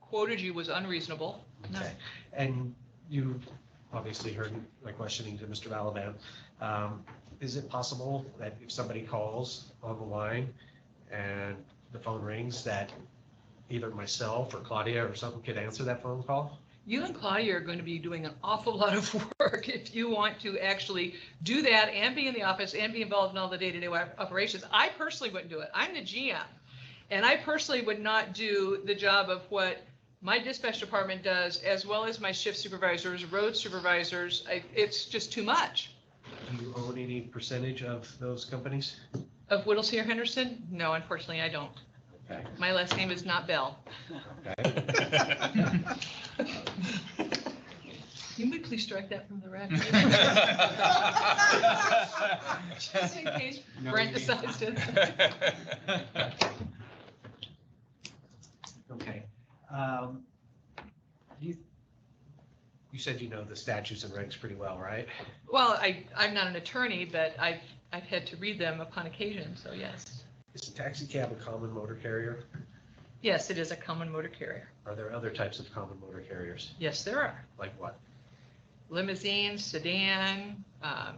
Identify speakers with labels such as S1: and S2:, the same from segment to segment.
S1: quoted you was unreasonable. No.
S2: Okay, and you obviously heard my questioning to Mr. Balaban. Um, Is it possible that if somebody calls on the line and the phone rings, that either myself or Claudia or something could answer that phone call?
S1: You and Claudia are going to be doing an awful lot of work if you want to actually do that and be in the office and be involved in all the day-to-day op- operations. I personally wouldn't do it. I'm the GM. And I personally would not do the job of what my dispatch department does, as well as my shift supervisors, road supervisors. I- It's just too much.
S2: Do you own any percentage of those companies?
S1: Of Whittlesey or Henderson? No, unfortunately, I don't.
S2: Okay.
S1: My last name is not Bell.
S2: Okay.
S1: Can we please strike that from the record? Just in
S3: Brent
S1: case Brent decides to.
S2: Okay. Um, You you said you know the statutes and regs pretty well, right?
S1: Well, I, I'm not an attorney, but I've, I've had to read them upon occasion, so yes.
S2: Is a taxi cab a common motor carrier?
S1: Yes, it is a common motor carrier.
S2: Are there other types of common motor carriers?
S1: Yes, there are.
S2: Like what?
S1: Limousine, sedan, um,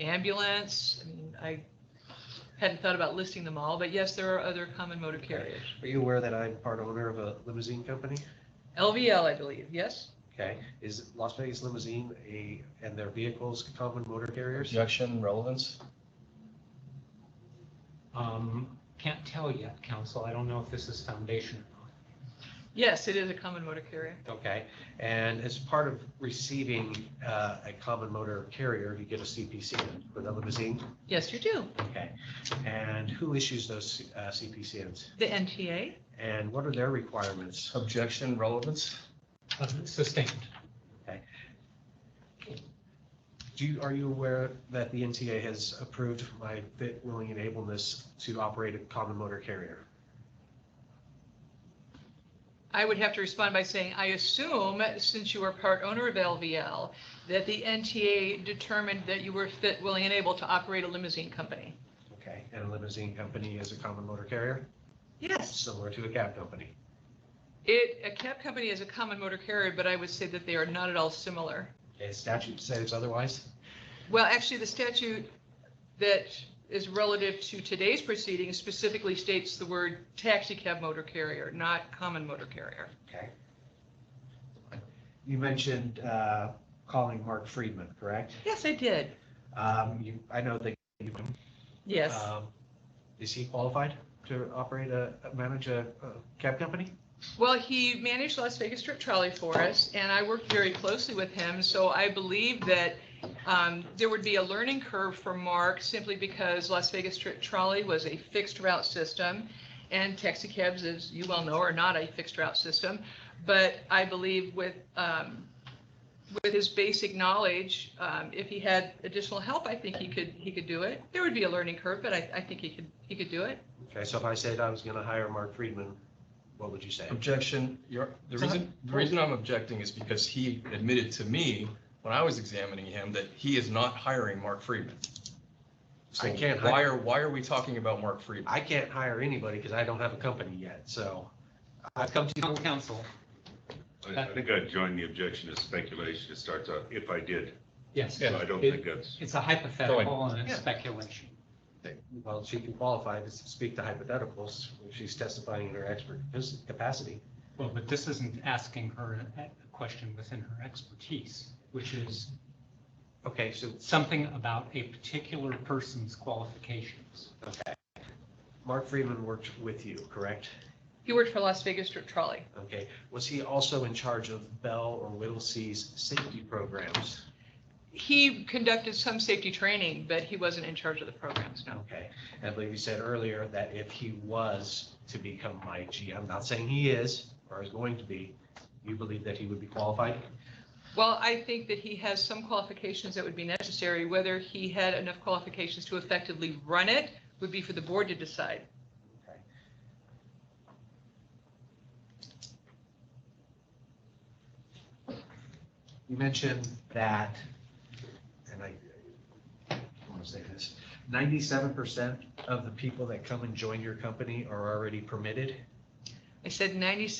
S1: ambulance. I mean, I hadn't thought about listing them all, but yes, there are other common motor carriers.
S2: Are you aware that I'm part owner of a limousine company?
S1: LVL, I believe, yes?
S2: Okay, is Las Vegas Limousine a, and their vehicles common motor carriers?
S3: Objection, relevance?
S4: Um, Can't tell yet, council. I don't know if this is foundation or not.
S1: Yes, it is a common motor carrier.
S2: Okay, and as part of receiving uh, a common motor carrier, you get a CPC for the limousine?
S1: Yes, you do.
S2: Okay, and who issues those uh, CPCNs?
S1: The NTA?
S2: And what are their requirements?
S3: Objection, relevance?
S4: Uh, Sustained.
S2: Do you, are you aware that the NTA has approved my fit, willing, and ableness to operate a common motor carrier?
S1: I would have to respond by saying, I assume, since you are part owner of LVL, that the NTA determined that you were fit, willing, and able to operate a limousine company.
S2: Okay, and a limousine company is a common motor carrier,
S1: Yes.
S2: similar to a cab company.
S1: It, a cab company is a common motor carrier, but I would say that they are not at all similar.
S2: Okay, statute says otherwise?
S1: Well, actually, the statute that is relative to today's proceedings specifically states the word taxi cab motor carrier, not common motor carrier.
S2: Okay. You mentioned uh, calling Mark Friedman, correct?
S1: Yes, I did.
S2: Um, You, I know that you,
S1: Yes.
S2: um, is he qualified to operate a, manage a a cab company?
S1: Well, he managed Las Vegas Strip Trolley for us, and I worked very closely with him, so I believe that um, there would be a learning curve for Mark simply because Las Vegas Strip Trolley was a fixed route system, and taxicabs, as you well know, are not a fixed route system. But I believe with, um, with his basic knowledge, um, if he had additional help, I think he could, he could do it. There would be a learning curve, but I, I think he could, he could do it.
S2: Okay, so if I said I was going to hire Mark Friedman, what would you say?
S3: Objection, your, the reason, the reason I'm objecting is because he admitted to me, when I was examining him, that he is not hiring Mark Friedman.
S2: I
S3: So
S2: can't
S3: Why
S2: hire-
S3: are, why are we talking about Mark Friedman?
S2: I can't hire anybody because I don't have a company yet, so I've come to,
S4: Town council,
S5: I I think I'd join the objection to speculation. It starts out, if I did,
S4: yes.
S5: so I don't
S4: It-
S5: think that's,
S4: It's a hypothetical and
S2: Yeah.
S4: it's speculation.
S2: well, she can qualify to speak to hypotheticals. if She's testifying in her expert capacity.
S4: Well, but this isn't asking her a a question within her expertise, which is
S2: Okay, so
S4: something about a particular person's qualifications.
S2: Mark Friedman worked with you, correct?
S1: He worked for Las Vegas Strip Trolley.
S2: Okay, was he also in charge of Bell or Whittlesey's safety programs?
S1: He conducted some safety training, but he wasn't in charge of the programs, no.
S2: Okay, I believe you said earlier that if he was to become my GM, not saying he is or is going to be, you believe that he would be qualified?
S1: Well, I think that he has some qualifications that would be necessary. Whether he had enough qualifications to effectively run it would be for the board to decide.
S2: You mentioned that, and I want to say this, ninety-seven percent of the people that come and join your company are already permitted?
S1: I said 96